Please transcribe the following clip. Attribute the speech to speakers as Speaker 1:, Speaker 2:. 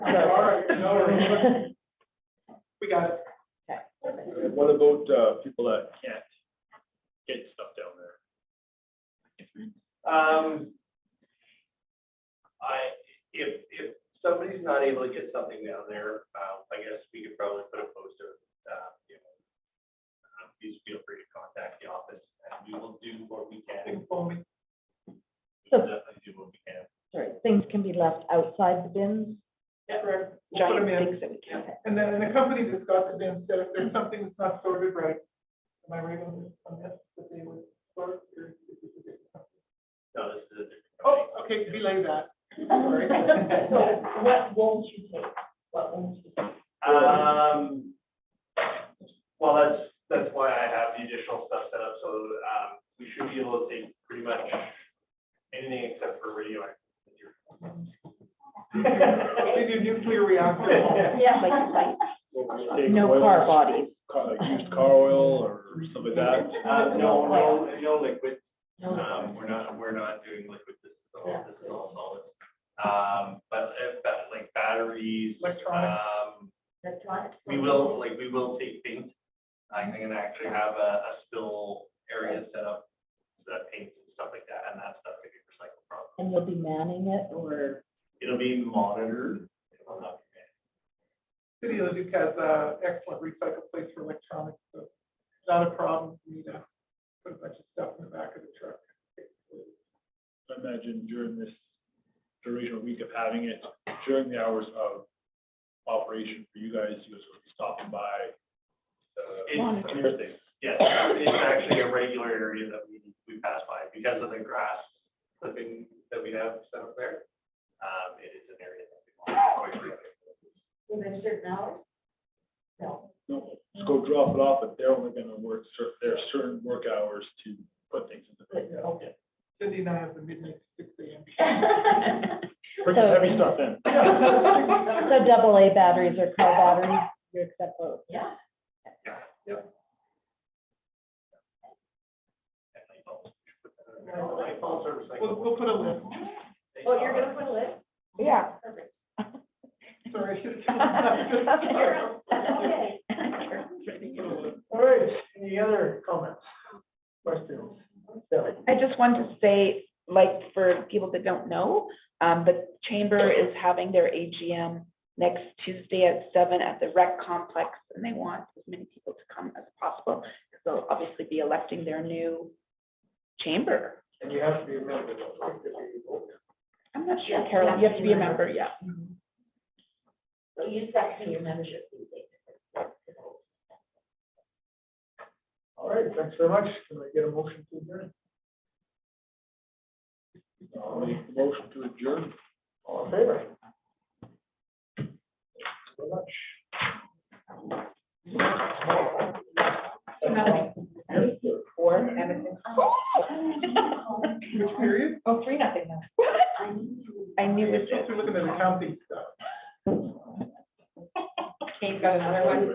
Speaker 1: We got it.
Speaker 2: What about, uh, people that can't get stuff down there?
Speaker 1: Um, I, if, if somebody's not able to get something down there, uh, I guess we could probably put a poster, uh, you know. uh, Please feel free to contact the office and we will do what we can. We'll Definitely do what we can.
Speaker 3: Sorry, things can be left outside the bins,
Speaker 4: Yeah, correct. We'll put
Speaker 3: giant
Speaker 4: 'em in.
Speaker 3: things that we can't. have.
Speaker 4: And then, and the company that's got the bin said if there's something that's not sorted right, am I right on this, on this, that they would sort? or is this a different company?
Speaker 1: No, this is a different.
Speaker 4: Oh, okay,
Speaker 1: company.
Speaker 4: relay that. Sorry.
Speaker 5: So what won't you take? What won't you take?
Speaker 1: Um, well, that's, that's why I have the additional stuff set up, so, um, we should be able to take pretty much anything except for radioactive.
Speaker 4: They do nuclear reactor.
Speaker 5: Yeah, like, like,
Speaker 2: What would you take,
Speaker 3: No
Speaker 2: oil,
Speaker 3: car bodies,
Speaker 2: ca- like Used car oil or something like that?
Speaker 1: Uh, no, no, no liquid,
Speaker 3: no,
Speaker 1: um, we're not, we're not doing liquid, this is all, this is all solid. Um, but, uh, but like batteries,
Speaker 4: Electronic.
Speaker 1: um,
Speaker 5: electronic.
Speaker 1: we will, like, we will take paint. I'm gonna actually have a, a spill area set up, so that paints and stuff like that, and that stuff can be recycled from.
Speaker 3: and you'll be manning it, or,
Speaker 1: It'll be monitored. It will not be banned.
Speaker 4: City of Leduc has a excellent recycle place for electronics, so it's not a problem for me to put a bunch of stuff in the back of the truck.
Speaker 2: I imagine during this duration or week of having it, during the hours of operation for you guys, you guys will be stopping by.
Speaker 1: It's-
Speaker 2: uh, Clear things.
Speaker 1: Yes, it's actually a regular area that we, we pass by because of the grass clipping that we have set up there. Um, it is an area that we want quite frequently.
Speaker 5: Within certain hours? No.
Speaker 2: No, Just go drop it off, but they're only gonna work, cer- there are certain work hours to put things in the bin.
Speaker 5: Okay.
Speaker 4: Cindy and I have the midnight to six AM.
Speaker 2: Purchase heavy stuff in.
Speaker 3: so double A batteries or car batteries, you accept those.
Speaker 5: Yeah.
Speaker 1: And light bulbs, we should put that in there. Light bulbs are
Speaker 4: We'll,
Speaker 1: recyclable.
Speaker 4: we'll put a list.
Speaker 1: They
Speaker 5: Oh, you're
Speaker 1: are.
Speaker 5: gonna put a list?
Speaker 3: Yeah.
Speaker 5: Perfect.
Speaker 4: Sorry. I should have-
Speaker 5: Okay.
Speaker 6: All right, any other comments, questions? Sally?
Speaker 7: I just wanted to say, like, for people that don't know, um, the chamber is having their AGM next Tuesday at seven at the rec complex, and they want as many people to come as possible, because they'll obviously be electing their new chamber.
Speaker 6: And you have to be a member, don't forget to be voting.
Speaker 7: I'm not sure,
Speaker 5: Yeah,
Speaker 7: Carol, you have to be a member, yeah.
Speaker 5: So you set your membership fee. basically.
Speaker 6: All right, thanks very much. Can I get a motion to adjourn?
Speaker 2: I'll make the Motion to adjourn.
Speaker 6: All in favor? Thanks Very much.
Speaker 3: Or Edmonton.
Speaker 4: Which period?
Speaker 3: Oh, three, nothing now.
Speaker 7: I knew it.
Speaker 4: We're looking at accounting stuff.
Speaker 3: Kane's got another one.